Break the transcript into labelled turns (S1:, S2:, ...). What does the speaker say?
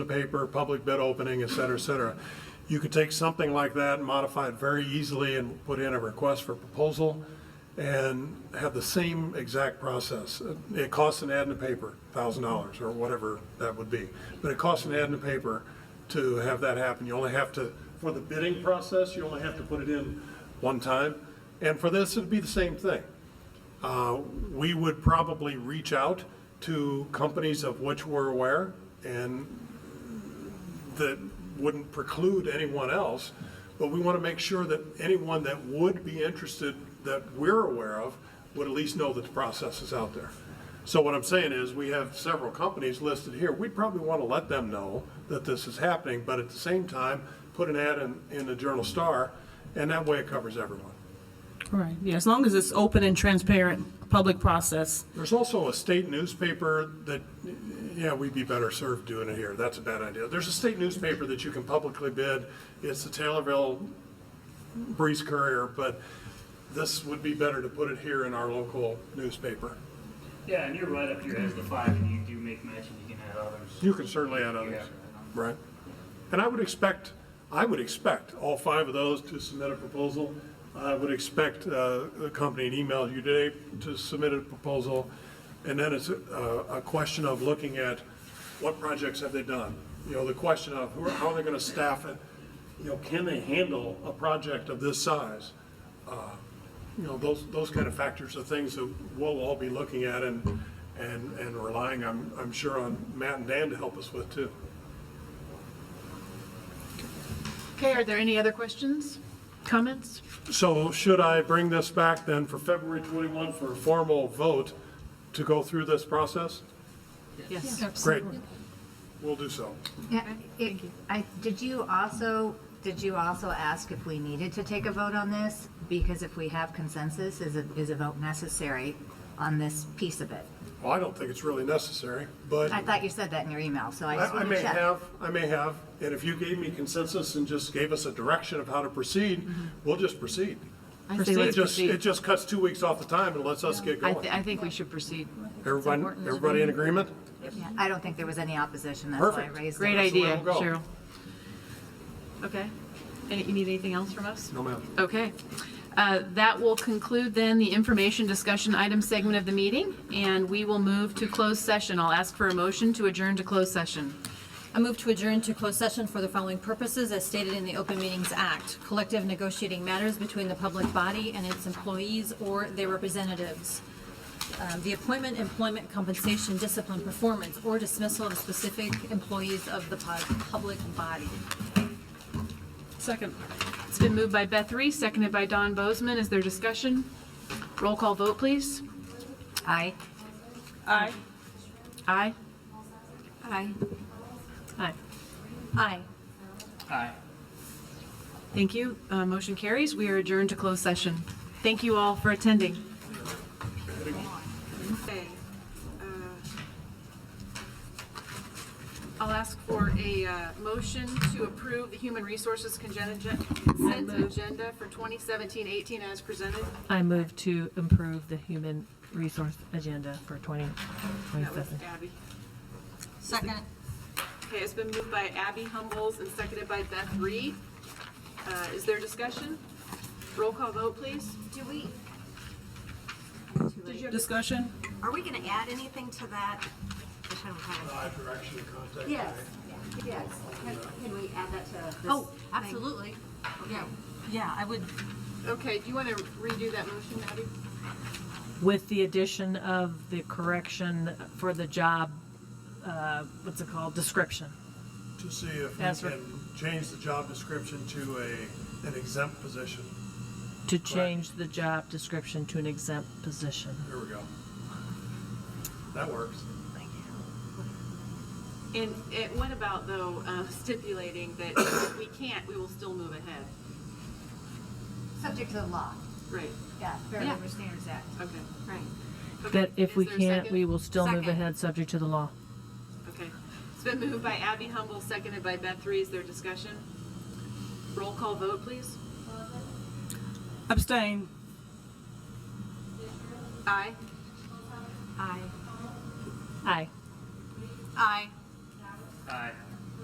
S1: the paper, public bid opening, et cetera, et cetera. You could take something like that and modify it very easily and put in a request for proposal and have the same exact process. It costs an ad in the paper, thousand dollars or whatever that would be. But it costs an ad in the paper to have that happen. You only have to, for the bidding process, you only have to put it in one time. And for this, it'd be the same thing Uh, we would probably reach out to companies of which we're aware and that wouldn't preclude anyone else, but we want to make sure that anyone that would be interested, that we're aware of, would at least know that the process is out there. So what I'm saying is, we have several companies listed here, we'd probably want to let them know that this is happening, but at the same time, put an ad in, in the Journal Star, and that way it covers everyone.
S2: Right, yeah, as long as it's open and transparent, public process.
S1: There's also a state newspaper that, yeah, we'd be better served doing it here. That's a bad idea. There's a state newspaper that you can publicly bid. It's the Taylorville Breeze Courier, but this would be better to put it here in our local newspaper.
S3: Yeah, and you're right up here as the five, and you do make mention you can add others.
S1: You can certainly add others, right? And I would expect, I would expect all five of those to submit a proposal. I would expect uh, the company to email you today to submit a proposal. And then it's a, a question of looking at what projects have they done? You know, the question of who- how are they going to staff it? You know, can they handle a project of this size? you know, those, those kind of factors are things that we'll all be looking at and, and, and relying, I'm, I'm sure, on Matt and Dan to help us with too.
S4: Okay, are there any other questions, comments?
S1: So should I bring this back then for February 21 for a formal vote to go through this process?
S2: Yes.
S1: Great. We'll do so.
S5: Yeah, it, I, did you also, did you also ask if we needed to take a vote on this? Because if we have consensus, is a, is a vote necessary on this piece of it?
S1: Well, I don't think it's really necessary, but
S5: I
S1: I
S5: thought you said that in your email, so I just
S1: I
S5: want
S1: may
S5: to check.
S1: have, I may have. And if you gave me consensus and just gave us a direction of how to proceed, we'll just proceed.
S4: Mm-hmm. I say
S1: It
S4: let's
S1: just, it
S4: proceed.
S1: just cuts two weeks off the time and lets us get
S4: I,
S1: going.
S4: thi- I think we should proceed.
S1: Everybody,
S4: important to
S1: everybody in agreement?
S5: Yeah, I don't think there was any opposition, that's why I
S1: Perfect.
S5: raised it.
S4: Great
S1: That's the way
S4: idea,
S1: we'll go.
S4: Cheryl. Okay. Any, you need anything else from us?
S1: No, ma'am.
S4: Okay. Uh, That will conclude then the information discussion item segment of the meeting, and we will move to closed session. I'll ask for a motion to adjourn to closed session.
S6: I move to adjourn to closed session for the following purposes as stated in the Open Meetings Act. Collective negotiating matters between the public body and its employees or their representatives. Um, The appointment, employment, compensation, discipline, performance, or dismissal of specific employees of the pu- public body.
S2: Second.
S4: It's been moved by Beth Reese, seconded by Don Bozeman. Is there discussion? Roll call vote, please.
S5: Aye.
S2: Aye.
S4: Aye?
S6: Aye.
S4: Aye.
S6: Aye.
S3: Aye.
S4: Thank you. Uh, Motion carries. We are adjourned to closed session. Thank you all for attending.
S7: Okay, uh,
S2: I'll ask
S7: for a uh, motion to approve the Human Resources congen- agen- consent agenda for 2017-18 as presented.
S8: I move to improve the human resource agenda for 20,
S7: That was
S8: 27.
S7: Abby.
S6: Second.
S7: Okay, it's been moved by Abby Humbles and seconded by Beth Reed. Uh, Is there discussion? Roll call vote, please.
S9: Do we,
S2: Discussion?
S9: are we gonna add anything to that? Which I don't have.
S1: Five direction of contact.
S9: Yes, yes. Can can we add that to this?
S6: Oh, absolutely. Yeah, yeah, I would
S7: Okay, do you want to redo that motion, Abby?
S8: With the addition of the correction for the job, uh, what's it called, description.
S1: To see if we
S8: That's
S1: can
S8: right.
S1: change the job description to a, an exempt position.
S8: To change the job description to an exempt position.
S1: There we go. That works.
S7: And it- what about, though, uh, stipulating that if we can't, we will still move ahead?
S5: Subject to the law,
S7: Right,
S5: yeah, Fair
S7: Yeah.
S5: Labor Standards Act.
S7: okay.
S9: Right.
S7: Okay,
S8: That if
S7: is
S8: we
S7: there a
S8: can't,
S7: second?
S8: we will still move
S9: Second.
S8: ahead, subject to the law.
S7: Okay. It's been moved by Abby Humble, seconded by Beth Rees. Their discussion? Roll call vote, please.
S2: Abstain.
S7: Aye.
S6: Aye.
S8: Aye.
S6: Aye.
S7: Aye.